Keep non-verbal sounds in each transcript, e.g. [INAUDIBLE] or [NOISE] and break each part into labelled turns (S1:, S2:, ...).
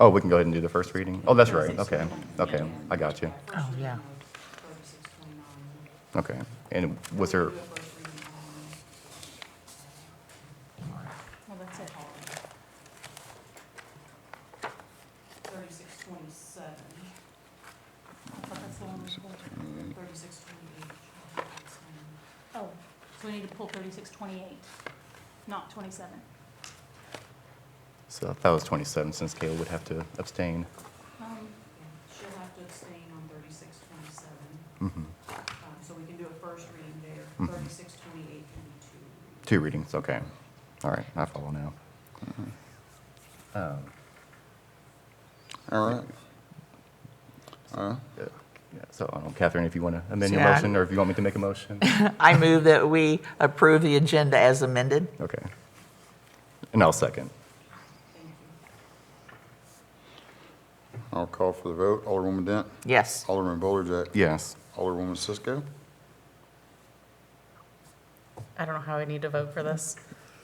S1: Oh, we can go ahead and do the first reading? Oh, that's right, okay, okay, I got you,
S2: Oh, yeah.
S1: okay. And was there,
S3: Well, that's it.
S4: Thirty-six twenty-seven.
S3: But that's the one we pulled.
S4: Thirty-six twenty-eight.
S3: Oh, so we need to pull thirty-six twenty-eight, not twenty-seven.
S1: so I thought it was 27, since Kayla would have to abstain.
S3: Um,
S4: She'll have to abstain on thirty-six twenty-seven,
S1: Mhm.
S4: um, so we can do a first reading there.
S1: Mhm.
S4: Thirty-six twenty-eight can be two readings.
S1: Two readings, okay. All right, I follow now. Um,
S5: All right. All right.
S1: yeah, So, I don't know, Catherine, if you want to amend your
S2: Yeah.
S1: motion, or if you want me to make a motion?
S2: I move that we approve the agenda as amended.
S1: Okay. And I'll second.
S4: Thank you.
S5: I'll call for the vote. Alderwoman Dent,
S2: Yes.
S5: Alderman Bowlerjack,
S1: Yes.
S5: Alderwoman Cisco.
S6: I don't know how I need to vote for this.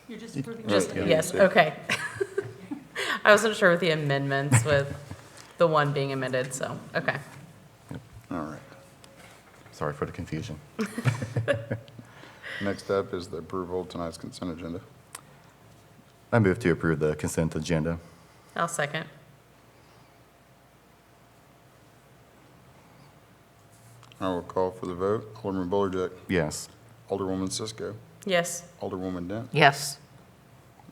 S3: You're just approving.
S5: Just-
S3: the-
S6: Yes, okay. [LAUGHS] I wasn't sure with the amendments, with the one being amended, so, okay.
S5: All right.
S1: Sorry for the confusion.
S5: Next up is the approval of tonight's consent agenda.
S1: I move to approve the consent agenda.
S6: I'll second.
S5: I will call for the vote. Alderman Bowlerjack,
S1: Yes.
S5: Alderwoman Cisco,
S6: Yes,
S5: Alderwoman Dent.
S2: Yes.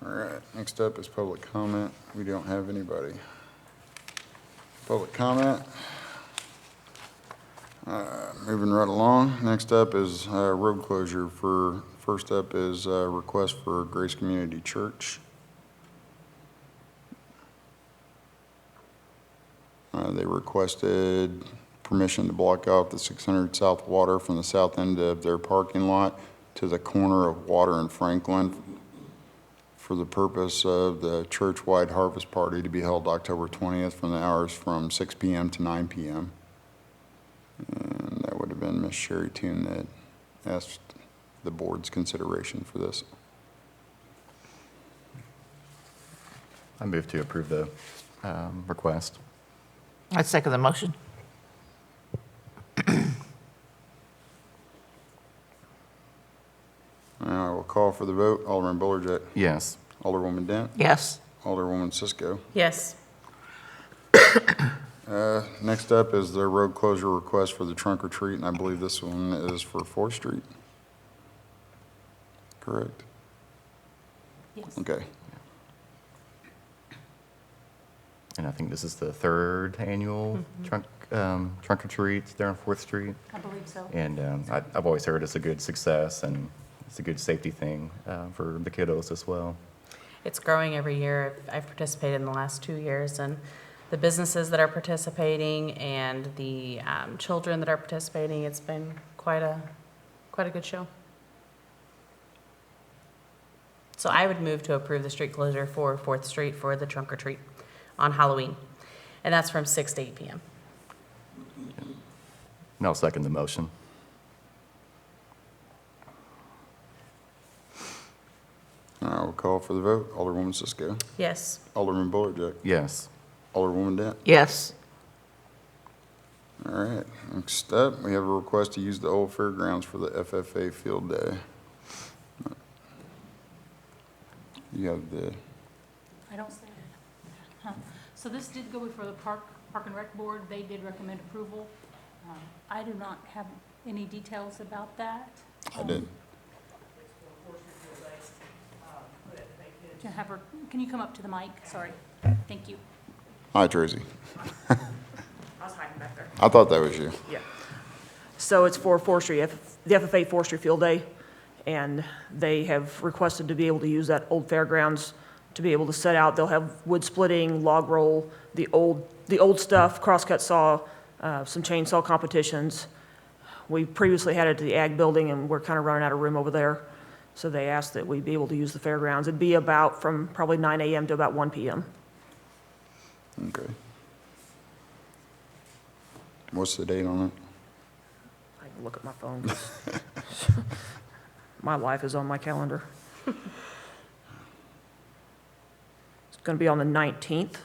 S5: All right, next up is public comment. We don't have anybody. Public comment. Uh, Moving right along, next up is uh, road closure for, first up is uh, request for Grace Community Church. Uh, They requested permission to block off the 600 South Water from the south end of their parking lot to the corner of Water and Franklin for the purpose of the church-wide harvest party to be held October 20th from the hours from 6 PM to 9 PM. And that would have been Miss Sherry Toon that asked the board's consideration for this.
S1: I move to approve the um, request.
S2: I second the motion.
S5: And I will call for the vote. Alderman Bowlerjack,
S1: Yes.
S5: Alderwoman Dent,
S2: Yes.
S5: Alderwoman Cisco.
S6: yes,
S5: Uh, Next up is the road closure request for the trunk or treat, and I believe this one is for Fourth Street. Correct?
S3: Yes.
S5: Okay.
S1: And I think this is the third annual trunk, um, trunk or treat there on Fourth Street.
S3: I believe so.
S1: And um, I, I've always heard it's a good success and it's a good safety thing uh, for the kiddos as well.
S6: it's growing every year. I've- I've participated in the last two years, and the businesses that are participating and the um, children that are participating, it's been quite a, quite a good show. So I would move to approve the street closure for Fourth Street for the trunk or treat on Halloween, and that's from 6 to 8 p.m.
S1: And I'll second the motion.
S5: I will call for the vote. Alderwoman Cisco,
S6: Yes,
S5: Alderman Bowlerjack,
S1: Yes.
S5: Alderwoman Dent.
S2: Yes.
S5: All right, next up, we have a request to use the old fairgrounds for the FFA Field Day. You have the,
S3: I don't see it. Huh. So this did go before the Park, Park and Rec Board. They did recommend approval. Um, I do not have any details about that.
S5: I did,
S7: um,
S3: To have her, can you come up to the mic? Sorry. Thank you.
S5: hi Tracy,
S7: I was hiding back there.
S5: I thought that was you.
S7: Yeah. So it's for forestry, F- the FFA Forestry Field Day, and they have requested to be able to use that old fairgrounds to be able to set out. They'll have wood splitting, log roll, the old, the old stuff, crosscut saw, uh, some chainsaw competitions. We previously had it at the Ag Building, and we're kind of running out of room over there, so they asked that we be able to use the fairgrounds. It'd be about from probably 9 AM to about 1 PM.
S5: Okay. What's the date on it?
S7: I can look at my phone. [LAUGHS] 'cause My life is on my [LAUGHS] calendar. It's going to be on the 19th